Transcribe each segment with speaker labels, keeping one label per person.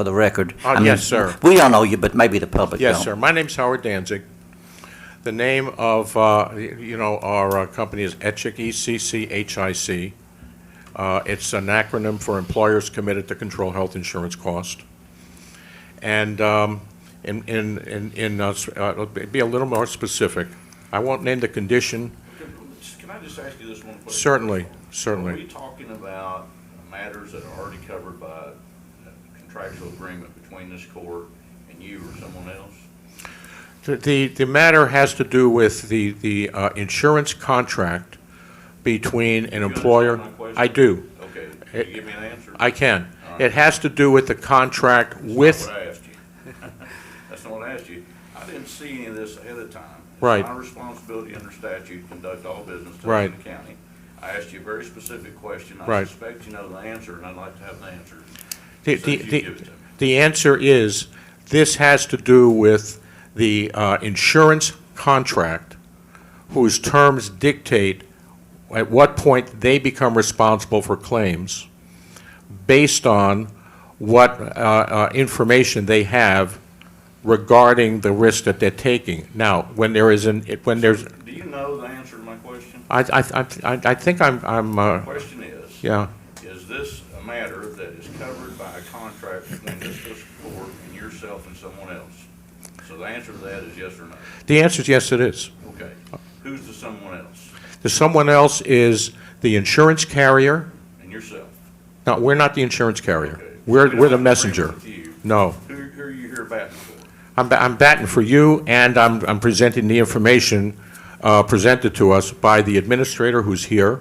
Speaker 1: for the record.
Speaker 2: Uh,
Speaker 1: I mean,
Speaker 2: yes, sir.
Speaker 1: We all know you, but maybe the public don't.
Speaker 2: Yes, sir. My name's Howard Danzig. The name of, uh, you know, our uh, company is ECHIC, E-C-C-H-I-C. Uh, It's an acronym for Employers Committed to Control Health Insurance Cost. And um, in, in, in- in, uh, s- uh, be a little more specific. I won't name the condition,
Speaker 3: Can I just ask you this one question?
Speaker 2: certainly,
Speaker 3: Are
Speaker 2: certainly.
Speaker 3: we talking about matters that are already covered by a contractual agreement between this court and you or someone else?
Speaker 2: The, the matter has to do with the, the uh, insurance contract between an
Speaker 3: You understand
Speaker 2: employer.
Speaker 3: my question?
Speaker 2: I do.
Speaker 3: Okay,
Speaker 2: It-
Speaker 3: can you give me an answer?
Speaker 2: I can. It has to do with the contract
Speaker 3: That's
Speaker 2: with,
Speaker 3: not what I asked you. That's not what I asked you. I didn't see any of this ahead of time.
Speaker 2: Right.
Speaker 3: It's my responsibility under statute to conduct all business in
Speaker 2: Right.
Speaker 3: the county. I asked you a very specific question. I
Speaker 2: Right.
Speaker 3: suspect you know the answer, and I'd like to have the answer.
Speaker 2: the,
Speaker 3: So
Speaker 2: the,
Speaker 3: if you give it
Speaker 2: the-
Speaker 3: to me.
Speaker 2: the answer is, this has to do with the uh, insurance contract whose terms dictate at what point they become responsible for claims based on what uh, uh, information they have regarding the risk that they're taking. Now, when there is an, it- when there's,
Speaker 3: Do you know the answer to my question?
Speaker 2: I, I, I I think I'm, I'm, uh,
Speaker 3: Question is,
Speaker 2: yeah.
Speaker 3: is this a matter that is covered by a contract between this fiscal court and yourself and someone else? So the answer to that is yes or no.
Speaker 2: The answer is yes, it is.
Speaker 3: Okay. Who's the someone else?
Speaker 2: The someone else is the insurance carrier.
Speaker 3: And yourself?
Speaker 2: No, we're not the insurance carrier.
Speaker 3: Okay. We
Speaker 2: We're,
Speaker 3: don't
Speaker 2: we're the
Speaker 3: have an
Speaker 2: messenger.
Speaker 3: agreement with you.
Speaker 2: No.
Speaker 3: Who, who are you here batting for?
Speaker 2: I'm, ba- I'm batting for you, and I'm, I'm presenting the information uh, presented to us by the administrator who's here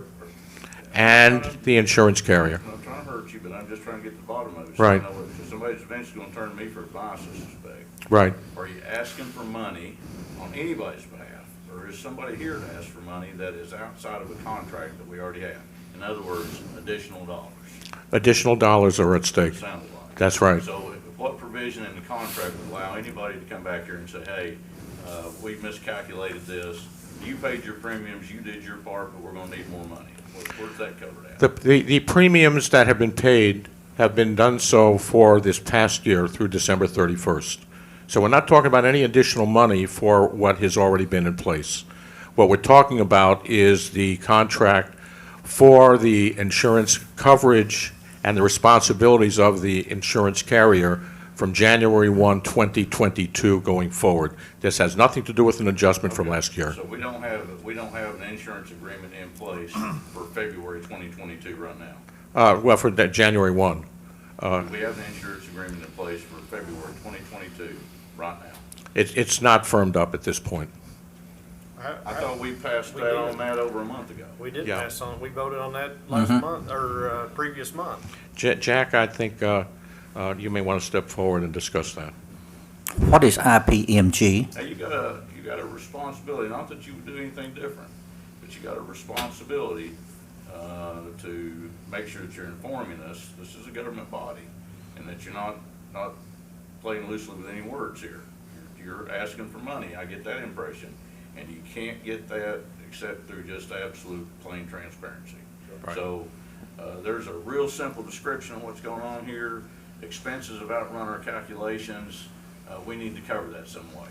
Speaker 2: and the insurance carrier.
Speaker 3: I'm not trying to hurt you, but I'm just trying to get to the bottom of it.
Speaker 2: Right.
Speaker 3: So I know if Somebody's eventually gonna turn to me for advice, I suspect.
Speaker 2: Right.
Speaker 3: Are you asking for money on anybody's behalf? Or is somebody here to ask for money that is outside of a contract that we already have? In other words, additional dollars,
Speaker 2: Additional dollars are at stake.
Speaker 3: it sounded like.
Speaker 2: That's right.
Speaker 3: So what provision in the contract would allow anybody to come back here and say, hey, uh, we miscalculated this, you paid your premiums, you did your part, but we're gonna need more money? Where- Where's that covered at?
Speaker 2: The, the the premiums that have been paid have been done so for this past year through December 31st. So we're not talking about any additional money for what has already been in place. What we're talking about is the contract for the insurance coverage and the responsibilities of the insurance carrier from January 1, 2022 going forward. This has nothing to do with an adjustment from last year.
Speaker 3: So we don't have, we don't have an insurance agreement in place for February twenty twenty-two right now.
Speaker 2: Uh, Well, for that January 1.
Speaker 3: We have an insurance agreement in place for February 2022, right now.
Speaker 2: It- It's not firmed up at this point.
Speaker 3: I thought we passed
Speaker 4: We
Speaker 3: that
Speaker 4: did.
Speaker 3: on that over a month ago.
Speaker 4: We did
Speaker 2: Yeah.
Speaker 4: pass on, we voted on that last month, or uh, previous month.
Speaker 2: Ja- Jack, I think uh, uh, you may want to step forward and discuss that.
Speaker 1: What is IPMG?
Speaker 3: Now, you got a, you got a responsibility, not that you would do anything different, but you got a responsibility uh, to make sure that you're informing us, this is a government body, and that you're not, not playing loosely with any words here. You're asking for money, I get that impression, and you can't get that except through just absolute plain transparency.
Speaker 2: Right.
Speaker 3: So, uh, there's a real simple description of what's going on here, expenses have outrun our calculations, uh, we need to cover that some way.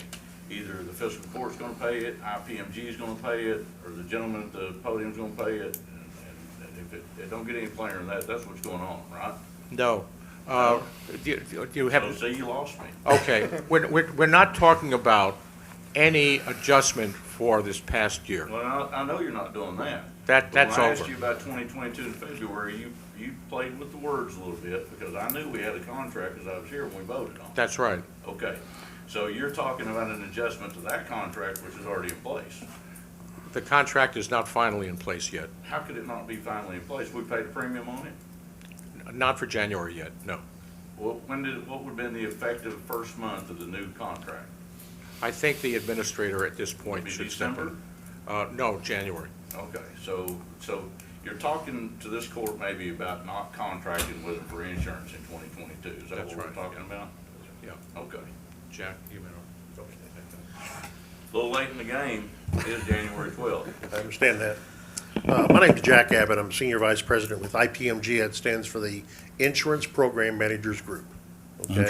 Speaker 3: Either the fiscal court's gonna pay it, IPMG is gonna pay it, or the gentleman at the podium's gonna pay it, and- and if it, it don't get any plainer than that, that's what's going on, right?
Speaker 2: No. Uh, You
Speaker 3: So, see, you lost me.
Speaker 2: okay, we're we're- we're not talking about any adjustment for this past year.
Speaker 3: Well, I, I know you're not doing that.
Speaker 2: That-
Speaker 3: But
Speaker 2: that's
Speaker 3: When I asked
Speaker 2: over.
Speaker 3: you about twenty twenty-two in February, you, you played with the words a little bit, because I knew we had a contract, because I was here when we voted on it.
Speaker 2: That's right.
Speaker 3: Okay, so you're talking about an adjustment to that contract, which is already in place.
Speaker 2: The contract is not finally in place yet,
Speaker 3: How could it not be finally in place? We paid a premium on it?
Speaker 2: not for January yet, no.
Speaker 3: What, when did, what would have been the effective first month of the new contract?
Speaker 2: I think the administrator at this point
Speaker 3: Maybe
Speaker 2: should step
Speaker 3: December?
Speaker 2: in. Uh, No, January.
Speaker 3: Okay, so, so you're talking to this court maybe about not contracting with them for insurance in twenty twenty-two, is that
Speaker 2: That's
Speaker 3: what we're
Speaker 2: right.
Speaker 3: talking about?
Speaker 2: Yeah,
Speaker 3: Okay.
Speaker 2: Jack, you may.
Speaker 3: A little late in the game, it is January twelfth.
Speaker 5: I understand that. Uh, My name's Jack Abbott. I'm Senior Vice President with IPMG. That stands for the Insurance Program Managers Group. okay?